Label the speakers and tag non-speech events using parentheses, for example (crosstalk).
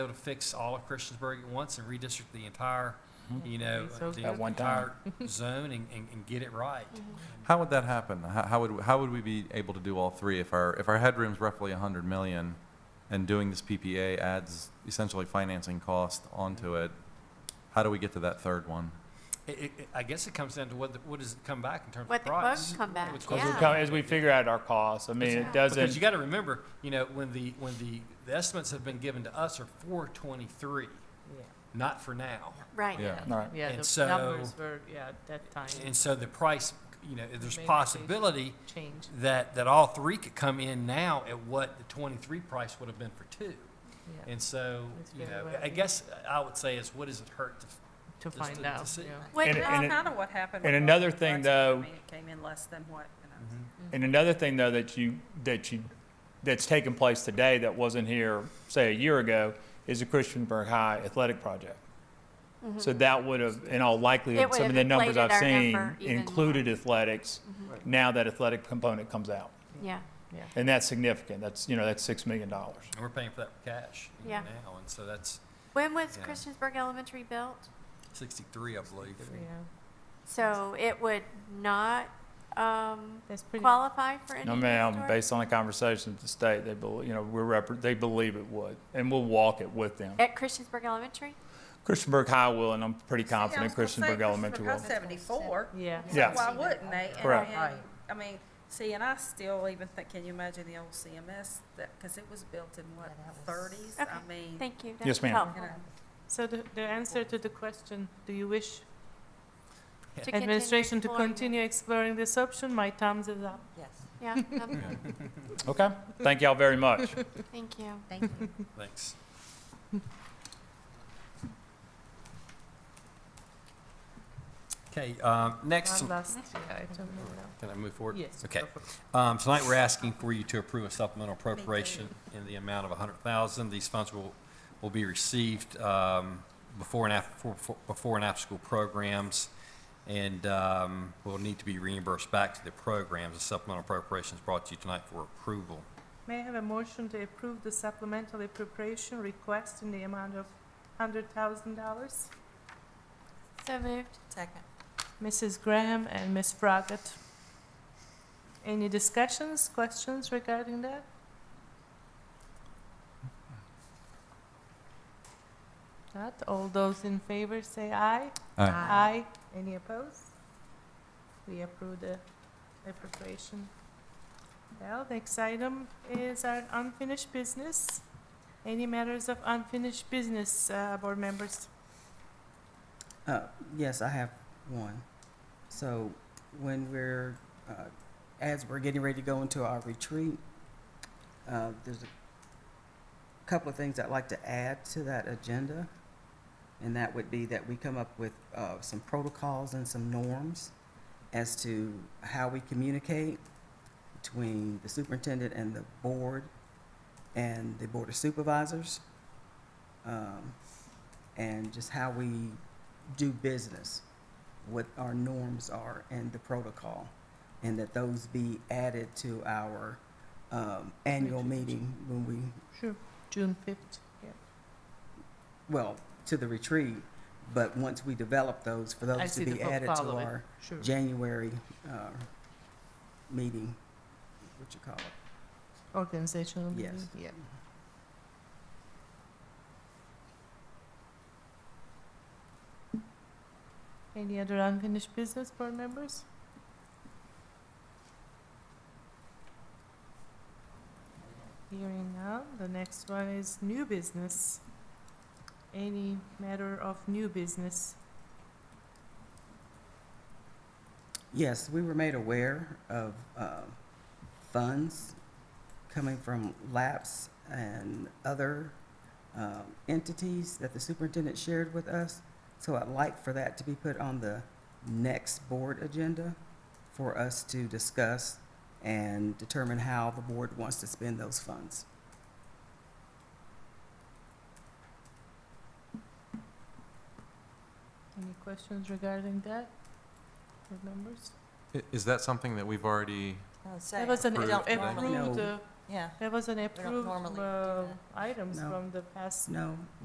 Speaker 1: able to fix all of Christiansburg at once and redistrict the entire, you know,
Speaker 2: That'd be so
Speaker 1: the
Speaker 2: good.
Speaker 3: At Mm-hmm. one time. (laughs)
Speaker 1: entire Zone and, and, and get it right.
Speaker 4: Mm-hmm.
Speaker 5: How would that happen? How, how would, how would we be able to do all three if our, if our headroom's roughly hundred million and doing this PPA adds essentially financing cost onto it? How do we get to that third one?
Speaker 1: It, it, it- I guess it comes down to what, the- what does it come back in terms
Speaker 4: What
Speaker 1: of
Speaker 4: the quotes
Speaker 1: price?
Speaker 4: come back,
Speaker 1: What's-
Speaker 3: As we
Speaker 4: Yeah.
Speaker 3: come- As we figure out our costs, I mean, it
Speaker 1: Because you
Speaker 3: doesn't,
Speaker 1: gotta remember, you know, when the, when the, the estimates have been given to us are four twenty-three, not for now.
Speaker 4: right.
Speaker 5: Yeah.
Speaker 3: All right.
Speaker 2: Yeah,
Speaker 1: And
Speaker 2: the
Speaker 1: so-
Speaker 2: numbers were, yeah, at that time
Speaker 1: And so the price, you know, there's
Speaker 2: Maybe they
Speaker 1: possibility
Speaker 2: changed.
Speaker 1: that, that all three could come in now at what the twenty-three price would have been for two.
Speaker 2: Yeah,
Speaker 1: And so,
Speaker 2: That's
Speaker 1: you
Speaker 2: very
Speaker 1: know,
Speaker 2: well
Speaker 1: I
Speaker 2: put.
Speaker 1: guess I would say is what does it hurt to,
Speaker 2: to
Speaker 1: just
Speaker 2: find
Speaker 1: to- to
Speaker 2: out,
Speaker 1: see.
Speaker 2: yeah.
Speaker 4: Wait,
Speaker 3: And-
Speaker 4: no,
Speaker 3: and
Speaker 6: Well,
Speaker 3: it-
Speaker 6: kind of what happened.
Speaker 3: and
Speaker 6: with
Speaker 3: another
Speaker 6: Robert
Speaker 3: thing,
Speaker 6: Redford.
Speaker 3: though- Mm-hmm.
Speaker 6: I mean, it came in less than what, you know.
Speaker 3: And another thing, though, that you, that you, that's taking place today that wasn't here, say, a year ago, is the Christiansburg High Athletic Project. So that would have, in all
Speaker 4: Mm-hmm. It
Speaker 3: likelihood,
Speaker 4: would
Speaker 3: some
Speaker 4: have
Speaker 3: of the numbers I've
Speaker 4: inflated our
Speaker 3: seen
Speaker 4: number even more. Mm-hmm.
Speaker 3: included athletics. Now that athletic component comes out,
Speaker 4: Yeah,
Speaker 3: and that's significant. That's, you know, that's $6 million.
Speaker 1: and we're paying for that with cash you know,
Speaker 4: Yeah.
Speaker 1: now, and so that's
Speaker 4: when was
Speaker 1: Yeah.
Speaker 4: Christiansburg Elementary built?
Speaker 1: sixty-three, I believe.
Speaker 2: Yeah,
Speaker 4: So it would not, um,
Speaker 2: that's pretty.
Speaker 4: qualify for any
Speaker 3: No, ma'am, based on the conversation with the state, they believe, you know, we're, repre- they believe it would, and we'll walk it with them.
Speaker 4: At Christiansburg Elementary?
Speaker 3: Christiansburg High will, and I'm pretty
Speaker 6: See, I was
Speaker 3: confident
Speaker 6: gonna say,
Speaker 3: Christiansburg Elementary will.
Speaker 6: High's Seventy-four.
Speaker 2: Yeah.
Speaker 6: So
Speaker 3: Yeah.
Speaker 6: Why wouldn't they? And,
Speaker 3: Correct.
Speaker 6: you know, I mean, see, and I still even think, can you imagine the old CMS that, because it was built in what, thirties? I
Speaker 4: Okay,
Speaker 6: mean,
Speaker 4: Thank you.
Speaker 3: Yes,
Speaker 4: That's
Speaker 3: ma'am.
Speaker 4: helpful.
Speaker 6: you know,
Speaker 2: So the, the answer to the question, do you wish
Speaker 4: To continue
Speaker 2: administration to
Speaker 4: exploring it.
Speaker 2: continue exploring this option? My thumbs is up.
Speaker 4: Yeah, um,
Speaker 3: Okay, thank y'all very much.
Speaker 4: thank you.
Speaker 2: (laughs)
Speaker 1: Thanks. Okay, um, next,
Speaker 2: One last item now.
Speaker 1: can I move forward?
Speaker 2: Yes.
Speaker 1: Okay.
Speaker 2: go for it.
Speaker 1: Um, tonight, we're asking for you to approve a supplemental appropriation in the amount of a hundred thousand. These funds will, will be received, um, before and after, before- before and after school programs and, um, will need to be reimbursed back to the programs. The supplemental appropriation is brought to you tonight for approval.
Speaker 2: May I have a motion to approve the supplemental appropriation request in the amount of hundred thousand dollars?
Speaker 4: So moved.
Speaker 6: Second.
Speaker 2: Mrs. Graham and Ms. Froggatt. Any discussions, questions regarding that? Not, all those in favor say aye.
Speaker 5: Aye.
Speaker 2: Aye. Any opposed? We approve the appropriation. Well, next item is our unfinished business. Any matters of unfinished business, uh, board members?
Speaker 7: Uh, yes, I have one. So when we're, uh, as we're getting ready to go into our retreat, uh, there's a couple of things I'd like to add to that agenda. And that would be that we come up with, uh, some protocols and some norms as to how we communicate between the superintendent and the board and the board of supervisors. Um, and just how we do business, what our norms are and the protocol, and that those be added to our um, annual meeting when we,
Speaker 2: Sure. June fifth, yeah.
Speaker 7: well, to the retreat, but once we develop those, for
Speaker 2: I
Speaker 7: those
Speaker 2: see
Speaker 7: to be
Speaker 2: the fo-
Speaker 7: added to
Speaker 2: following.
Speaker 7: our
Speaker 2: Sure.
Speaker 7: January uh, meeting, what you call it.
Speaker 2: Organizational meeting?
Speaker 7: Yes.
Speaker 2: Yeah. Any other unfinished business, board members? Hearing now, the next one is new business. Any matter of new business?
Speaker 7: Yes, we were made aware of uh, funds coming from LAPS and other um, entities that the superintendent shared with us. So I'd like for that to be put on the next board agenda for us to discuss and determine how the board wants to spend those funds.
Speaker 2: Any questions regarding that, board members?
Speaker 5: I- Is that something that we've already,
Speaker 2: That was an
Speaker 5: Approved.
Speaker 2: approved,
Speaker 7: No.
Speaker 2: uh,
Speaker 6: Yeah.
Speaker 2: There was an
Speaker 6: don't
Speaker 2: approved
Speaker 6: normally do
Speaker 2: uh,
Speaker 6: that.
Speaker 2: items
Speaker 7: No.
Speaker 2: from the past
Speaker 7: No,